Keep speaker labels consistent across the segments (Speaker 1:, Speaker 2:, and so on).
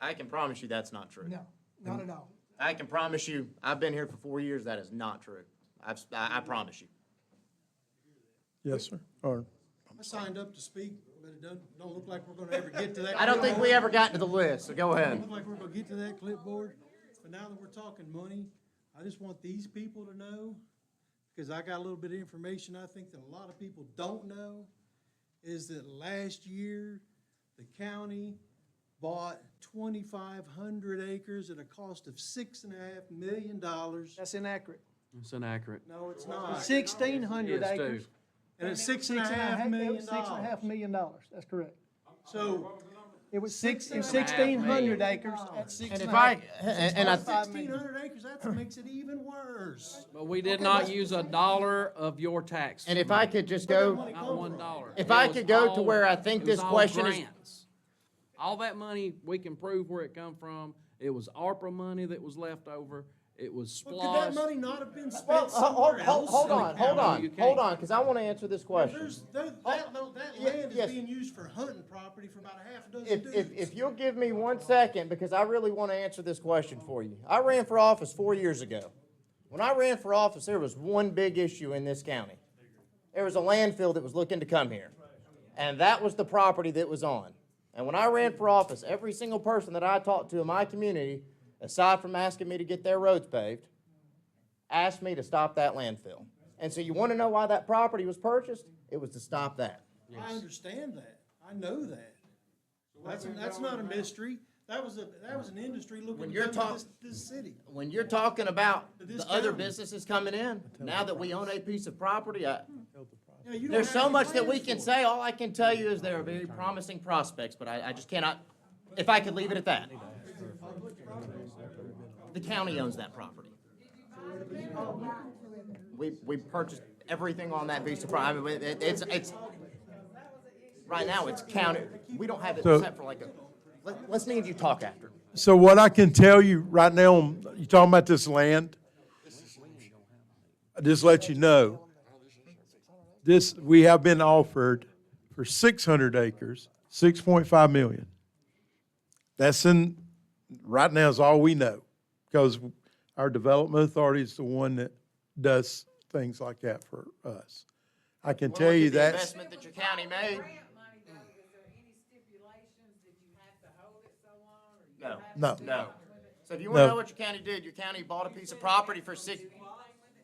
Speaker 1: I can promise you that's not true.
Speaker 2: No, not at all.
Speaker 1: I can promise you, I've been here for four years, that is not true. I've, I, I promise you.
Speaker 3: Yes, sir. Or,
Speaker 4: I signed up to speak, but it doesn't, don't look like we're gonna ever get to that.
Speaker 1: I don't think we ever got to the list, so go
Speaker 4: Don't
Speaker 1: ahead.
Speaker 4: Look like we're gonna get to that clipboard, but now that we're talking money, I just want these people to know, because I got a little bit of information I think that a lot of people don't know, is that last year, the county bought twenty-five hundred acres at a cost of six and a half million dollars.
Speaker 2: That's inaccurate.
Speaker 5: It's inaccurate.
Speaker 4: No, it's not.
Speaker 2: Sixteen hundred
Speaker 5: Yes, Steve.
Speaker 2: acres.
Speaker 4: And it's six
Speaker 2: Six and a half- it was
Speaker 4: million
Speaker 2: Six and a half
Speaker 4: dollars.
Speaker 2: million dollars, that's correct.
Speaker 4: So,
Speaker 2: It was six, it was
Speaker 5: and a half
Speaker 2: sixteen hundred
Speaker 5: million.
Speaker 2: acres at six
Speaker 1: And
Speaker 2: and a
Speaker 1: if
Speaker 2: half.
Speaker 1: I, and and I,
Speaker 4: sixteen hundred acres, that makes it even worse.
Speaker 5: But we did not use a dollar of your tax.
Speaker 1: and if I could just go,
Speaker 5: Not one dollar.
Speaker 1: If
Speaker 5: It
Speaker 1: I
Speaker 5: was
Speaker 1: could go to
Speaker 5: all-
Speaker 1: where I think
Speaker 5: it was
Speaker 1: this
Speaker 5: all
Speaker 1: question is-
Speaker 5: grants. All that money, we can prove where it come from. It was ARPA money that was left over. It was
Speaker 4: Well, could that
Speaker 5: splosh.
Speaker 4: money not have been
Speaker 1: well,
Speaker 4: spent
Speaker 1: hold,
Speaker 4: somewhere
Speaker 1: hold,
Speaker 4: else?
Speaker 1: hold on, hold
Speaker 5: You
Speaker 1: on,
Speaker 5: can't.
Speaker 1: hold on, because I want to answer this question.
Speaker 4: There's, that, that, lo- that
Speaker 1: Yeah,
Speaker 4: land is
Speaker 1: yes.
Speaker 4: being used for hunting property for about a half a dozen
Speaker 1: If, if,
Speaker 4: dudes.
Speaker 1: if you'll give me one second, because I really want to answer this question for you. I ran for office four years ago. When I ran for office, there was one big issue in this county. There was a landfill that was looking to come here. And that was the property that was on. And when I ran for office, every single person that I talked to in my community, aside from asking me to get their roads paved, asked me to stop that landfill. And so you want to know why that property was purchased? It was to stop that.
Speaker 4: I understand that, I know that. That's, that's not a mystery, that was a, that was an industry
Speaker 1: When
Speaker 4: looking
Speaker 1: you're
Speaker 4: to
Speaker 1: talk-
Speaker 4: come to this, this city.
Speaker 1: when you're talking about
Speaker 4: This
Speaker 1: the other
Speaker 4: county.
Speaker 1: businesses coming in, now that we own a piece of property, I,
Speaker 4: You know, you don't
Speaker 1: there's
Speaker 4: have
Speaker 1: so
Speaker 4: any
Speaker 1: much that we
Speaker 4: plans
Speaker 1: can
Speaker 4: for it.
Speaker 1: say. All I can tell you is there are very promising prospects, but I, I just cannot, if I could leave it at that. The county owns that property. We, we purchased everything on that piece of property. I mean, it- it's, it's, right now, it's county. We don't have it
Speaker 3: So-
Speaker 1: set for like a, let, let's need you talk after.
Speaker 3: so what I can tell you right now, you talking about this land? I just let you know, this, we have been offered for six hundred acres, six point five million. That's in, right now is all we know, because our development authority is the one that does things like that for us. I can tell you
Speaker 1: that
Speaker 3: that's.
Speaker 1: Investment that your county made.
Speaker 6: Grant money though, is there any stipulations that you have to hold it so long or you
Speaker 1: No.
Speaker 6: have
Speaker 3: No.
Speaker 6: to do
Speaker 1: No.
Speaker 6: something with it?
Speaker 1: So if you want to
Speaker 3: No.
Speaker 1: know what your county did, your county bought a piece of property for six.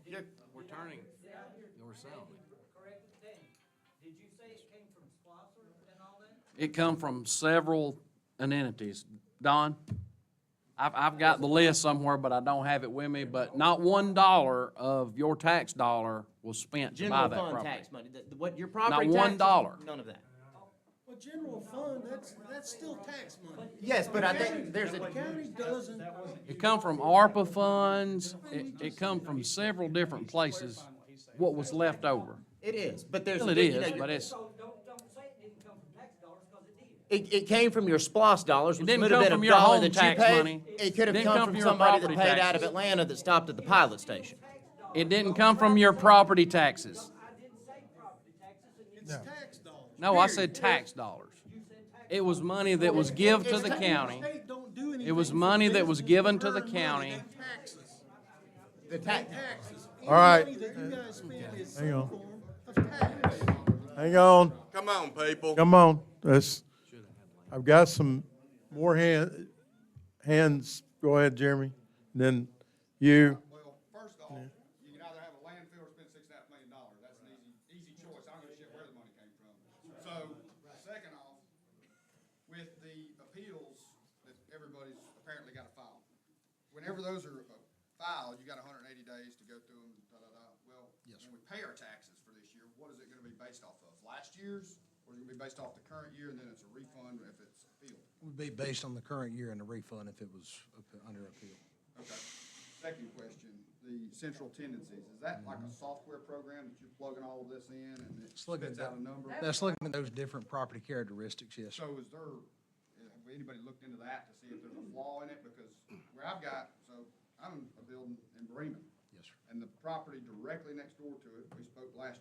Speaker 1: your-
Speaker 5: We're turning, we're selling. It come from several entities. Don, I've, I've got the list somewhere, but I don't have it with me, but not one dollar of your tax dollar was spent to buy
Speaker 1: General
Speaker 5: that
Speaker 1: fund
Speaker 5: property.
Speaker 1: tax money, The- what your property tax.
Speaker 5: one dollar.
Speaker 1: None of that.
Speaker 4: Well, general fund, that's, that's still tax money.
Speaker 1: Yes, but I think there's
Speaker 4: The
Speaker 1: a,
Speaker 4: county doesn't,
Speaker 5: It come from ARPA funds, it, it come from several different places, what was left over.
Speaker 1: it is, but there's.
Speaker 5: Still
Speaker 1: a
Speaker 5: it
Speaker 1: big- you
Speaker 5: is,
Speaker 1: know,
Speaker 5: but it's,
Speaker 1: It, it came from your SPOS dollars, which
Speaker 5: didn't
Speaker 1: would have
Speaker 5: come
Speaker 1: been
Speaker 5: from
Speaker 1: a
Speaker 5: your
Speaker 1: dollar
Speaker 5: home
Speaker 1: that you
Speaker 5: tax
Speaker 1: paid.
Speaker 5: money.
Speaker 1: It could have
Speaker 5: Didn't
Speaker 1: come
Speaker 5: come
Speaker 1: from
Speaker 5: from your
Speaker 1: somebody that
Speaker 5: property
Speaker 1: paid out of
Speaker 5: taxes.
Speaker 1: Atlanta that stopped at the pilot station.
Speaker 5: it didn't come from your property taxes.
Speaker 4: it's tax dollars.
Speaker 5: No, I
Speaker 4: period.
Speaker 5: said tax dollars. It was money that was give to the
Speaker 4: State-
Speaker 5: county.
Speaker 4: state don't do
Speaker 5: It was
Speaker 4: anything for
Speaker 5: money that was
Speaker 4: businesses
Speaker 5: given to
Speaker 4: earn
Speaker 5: the
Speaker 4: money.
Speaker 5: county.
Speaker 4: They tax us.
Speaker 1: The tax,
Speaker 4: taxes.
Speaker 3: All right.
Speaker 4: Any money that you guys spend is
Speaker 3: Hang
Speaker 4: some
Speaker 3: on.
Speaker 4: form of tax.
Speaker 3: Hang on.
Speaker 7: Come on, people.
Speaker 3: Come on, let's, I've got some more hand, hands, go ahead, Jeremy, and then you.
Speaker 8: Well, first off, you can either have a landfill or spend six and a half million dollars. That's an easy, easy choice. I don't give a shit where the money came from. So, second off, with the appeals that everybody's apparently got to file, whenever those are uh, filed, you got hundred and eighty days to go through them, da, da, da. Well, when we pay our taxes for this year, what is it gonna be based off of? Last year's, or is it gonna be based off the current year, and then it's a refund if it's appealed?
Speaker 9: Would be based on the current year and the refund if it was up- under appeal.
Speaker 8: Okay. Second question, the central tendencies, is that like a software program that you're plugging all of this in and it
Speaker 9: It's Mm-hmm. looking
Speaker 8: spits out a number?
Speaker 9: That's looking at those different property characteristics, yes. sir.
Speaker 8: So is there, have anybody looked into that to see if there's a flaw in it? Because where I've got, so I'm a building in Bremen.
Speaker 9: Yes, sir.
Speaker 8: And the property directly next door to it, we spoke last